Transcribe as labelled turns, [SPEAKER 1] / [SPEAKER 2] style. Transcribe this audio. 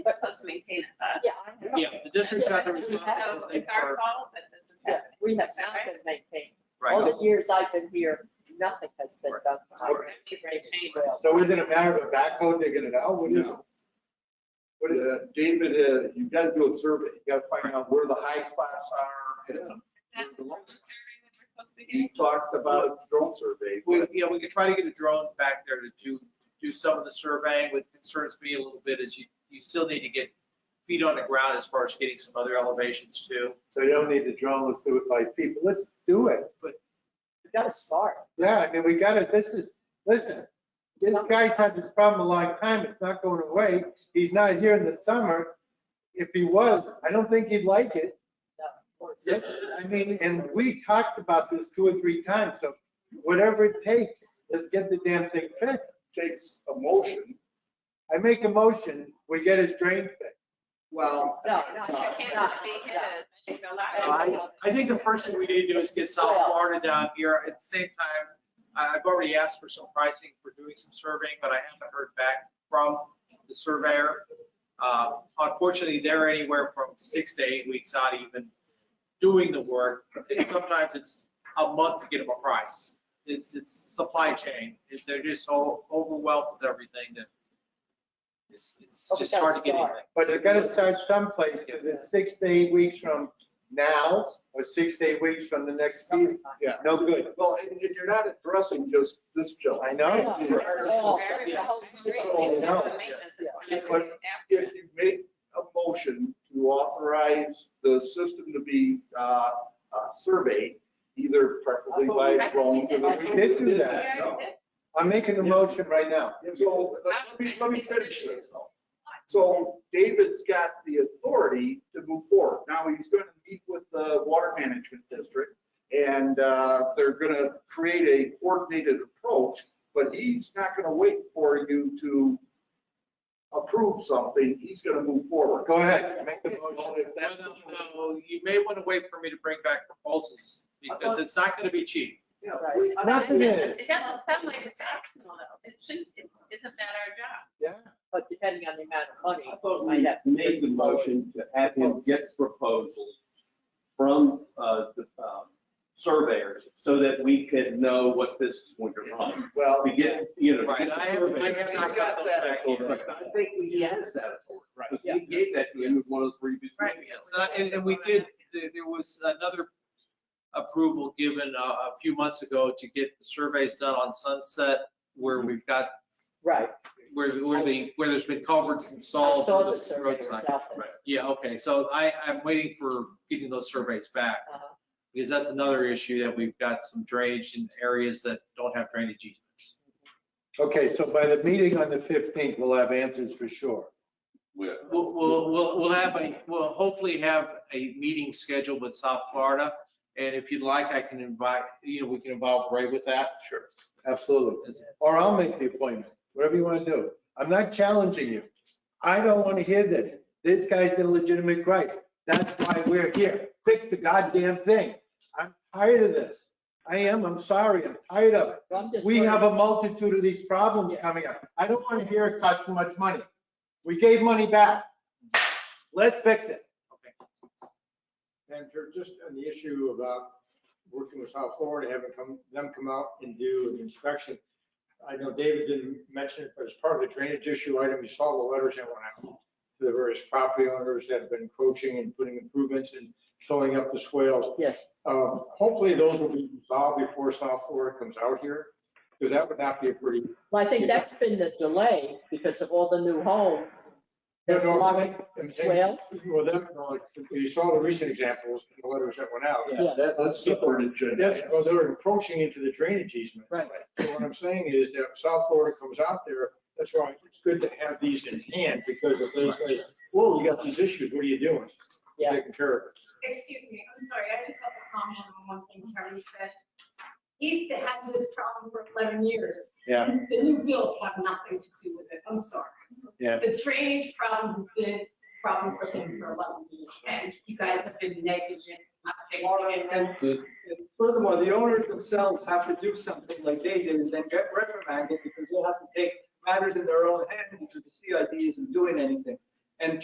[SPEAKER 1] maintain it, but,
[SPEAKER 2] Yeah.
[SPEAKER 3] Yeah, the district's got the
[SPEAKER 1] so
[SPEAKER 3] responsibility
[SPEAKER 1] it's our
[SPEAKER 3] for,
[SPEAKER 1] fault that this is
[SPEAKER 2] Yes,
[SPEAKER 1] happening.
[SPEAKER 2] we have not been maintained. All
[SPEAKER 3] right,
[SPEAKER 2] the years I've been here, nothing has been done. to our
[SPEAKER 1] Or it needs to change.
[SPEAKER 2] trail.
[SPEAKER 4] So is it a matter of a backhoe digging it out? What is,
[SPEAKER 5] No.
[SPEAKER 4] what is, it? David, uh, you gotta do a survey. You gotta find out where the high spots are. and
[SPEAKER 1] Is that the
[SPEAKER 4] We're
[SPEAKER 1] survey
[SPEAKER 4] the ones.
[SPEAKER 1] that we're supposed to be
[SPEAKER 4] You
[SPEAKER 1] getting?
[SPEAKER 4] talked about drone survey.
[SPEAKER 3] we, yeah, we could try to get a drone back there to do, do some of the surveying, what concerns me a little bit is you, you still need to get feet on the ground as far as getting some other elevations too.
[SPEAKER 4] So you don't need the drone, let's do it by people. Let's do it.
[SPEAKER 2] We've got to start.
[SPEAKER 4] Yeah, I mean, we gotta, this is, listen, this guy's had this problem a long time. It's not going away. He's not here in the summer. If he was, I don't think he'd like it.
[SPEAKER 2] No, of course.
[SPEAKER 4] Yes, I mean, and we talked about this two or three times, so whatever it takes, let's get the damn thing fixed.
[SPEAKER 5] Takes a motion.
[SPEAKER 4] I make a motion, we get his drain fixed.
[SPEAKER 5] Well,
[SPEAKER 2] No, no,
[SPEAKER 1] It
[SPEAKER 2] no,
[SPEAKER 1] can't
[SPEAKER 2] no,
[SPEAKER 1] just be his.
[SPEAKER 2] no.
[SPEAKER 1] It should be a lot
[SPEAKER 3] So
[SPEAKER 1] of-
[SPEAKER 3] I, I think the first thing we need to do is get South Florida down here. At the same time, I- I've already asked for some pricing for doing some surveying, but I haven't heard back from the surveyor. Uh, Unfortunately, they're anywhere from six to eight weeks out even doing the work. And Sometimes it's a month to get them a price. It's, it's supply chain. They're just so overwhelmed with everything that it's, it's
[SPEAKER 2] Oh, we
[SPEAKER 3] just
[SPEAKER 2] gotta
[SPEAKER 3] hard to get
[SPEAKER 2] start.
[SPEAKER 3] anything.
[SPEAKER 4] But it gotta start someplace, because it's six to eight weeks from now, or six to eight weeks from the next season.
[SPEAKER 5] yeah.
[SPEAKER 4] No good.
[SPEAKER 5] Well, and if you're not addressing just this jump.
[SPEAKER 4] I know.
[SPEAKER 2] Yeah.
[SPEAKER 1] Oh,
[SPEAKER 2] Oh,
[SPEAKER 1] I agree.
[SPEAKER 3] yes.
[SPEAKER 1] We need to
[SPEAKER 4] No,
[SPEAKER 1] do the maintenance
[SPEAKER 2] yes,
[SPEAKER 1] and
[SPEAKER 5] yeah.
[SPEAKER 1] planning after.
[SPEAKER 5] If you make a motion to authorize the system to be uh, uh, surveyed, either preferably by drones. or-
[SPEAKER 4] We did do
[SPEAKER 1] We
[SPEAKER 4] that.
[SPEAKER 1] already E did.
[SPEAKER 4] I'm making a motion right now.
[SPEAKER 5] So let me, let me finish this though. So David's got the authority to move forward. Now he's going to meet with the water management district and uh, they're going to create a coordinated approach, but he's not going to wait for you to approve something. He's going to move forward.
[SPEAKER 4] Go ahead, make the motion.
[SPEAKER 5] Well, if that's the
[SPEAKER 3] No, no, no, you may want to wait for me to bring back proposals, because it's not going to be cheap.
[SPEAKER 5] Yeah,
[SPEAKER 2] Right.
[SPEAKER 5] we-
[SPEAKER 4] Nothing is.
[SPEAKER 1] It doesn't sound like it's optional though. It shouldn't, it isn't that our job?
[SPEAKER 4] Yeah.
[SPEAKER 2] But depending on the amount of money,
[SPEAKER 6] I thought
[SPEAKER 2] might
[SPEAKER 6] we
[SPEAKER 2] have.
[SPEAKER 6] made the motion to have him get proposals from uh, the um, surveyors so that we could know what this is going to run.
[SPEAKER 5] Well,
[SPEAKER 6] To get, you know. to
[SPEAKER 3] Right,
[SPEAKER 6] get
[SPEAKER 3] I
[SPEAKER 6] the
[SPEAKER 3] have, I
[SPEAKER 6] survey.
[SPEAKER 3] have
[SPEAKER 5] We
[SPEAKER 3] not
[SPEAKER 5] got
[SPEAKER 3] got those
[SPEAKER 5] that
[SPEAKER 3] back
[SPEAKER 5] over.
[SPEAKER 3] yet.
[SPEAKER 6] But I think we has that authority. Because we gave that to him as one of the previous.
[SPEAKER 1] Right.
[SPEAKER 6] meetings.
[SPEAKER 3] Yes, and I- And, and we did, there there was another approval given a, a few months ago to get the surveys done on Sunset, where
[SPEAKER 2] Mm-hmm.
[SPEAKER 3] we've got,
[SPEAKER 2] Right.
[SPEAKER 3] where, where the, where there's been culverts
[SPEAKER 2] I
[SPEAKER 3] installed.
[SPEAKER 2] saw
[SPEAKER 3] for
[SPEAKER 2] the
[SPEAKER 3] the
[SPEAKER 2] surveyors
[SPEAKER 3] roadside.
[SPEAKER 2] out there.
[SPEAKER 6] Right.
[SPEAKER 3] Yeah, okay, so I, I'm waiting for getting those surveys back,
[SPEAKER 2] Uh-huh.
[SPEAKER 3] because that's another issue that we've got some drainage in areas that don't have drainage easements.
[SPEAKER 4] Okay, so by the meeting on the 15th, we'll have answers for sure.
[SPEAKER 5] we-
[SPEAKER 3] We'll, we'll, we'll we'll have a, we'll hopefully have a meeting scheduled with South Florida. And if you'd like, I can invite, you know, we can involve Ray with that. Sure.
[SPEAKER 4] Absolutely. Or I'll make the appointment, whatever you want to do. I'm not challenging you. I don't want to hear this. This guy's got a legitimate right. That's why we're here. Fix the goddamn thing. I'm tired of this. I am, I'm sorry, I'm tired of it.
[SPEAKER 2] Well, I'm just
[SPEAKER 4] We have a
[SPEAKER 2] wondering-
[SPEAKER 4] multitude of these problems coming up. I don't want to hear it costs too much money. We gave money back. Let's fix it.
[SPEAKER 7] And ju- just on the issue about working with South Florida, having come, them come out and do an inspection. I know David didn't mention it, but as part of the drainage issue item, you saw the letters that went out to the various property owners that have been encroaching and putting improvements and filling up the swales.
[SPEAKER 2] Yes,
[SPEAKER 7] Um, Hopefully, those will be resolved before South Florida comes out here, because that would not be a pretty.
[SPEAKER 2] well, I think that's been the delay because of all the new homes. They're
[SPEAKER 7] No, no,
[SPEAKER 2] blocking
[SPEAKER 7] I'm saying-
[SPEAKER 2] swales.
[SPEAKER 7] Well, them, like, you saw the recent examples, the letters that went out.
[SPEAKER 2] Yeah.
[SPEAKER 5] That, that's super agenda.
[SPEAKER 7] That's, well, they're encroaching into the drainage easement.
[SPEAKER 2] Right.
[SPEAKER 7] So what I'm saying is that South Florida comes out there, that's why it's good to have these in hand, because if they say, whoa, you got these issues, what are you doing? We're
[SPEAKER 2] Yeah.
[SPEAKER 7] Taking care of it.
[SPEAKER 8] Excuse me, I'm sorry, I just have a comment on one thing Terry said. He's had this problem for 11 years.
[SPEAKER 4] Yeah.
[SPEAKER 8] The new builds have nothing to do with it, I'm sorry.
[SPEAKER 4] Yeah.
[SPEAKER 8] The drainage problem has been a problem for him for 11 years, and you guys have been negligent, not fixing it. and-
[SPEAKER 9] Furthermore, the owners themselves have to do something like they did and then get reprimanded because they'll have to take matters in their own hand because the CID isn't doing anything.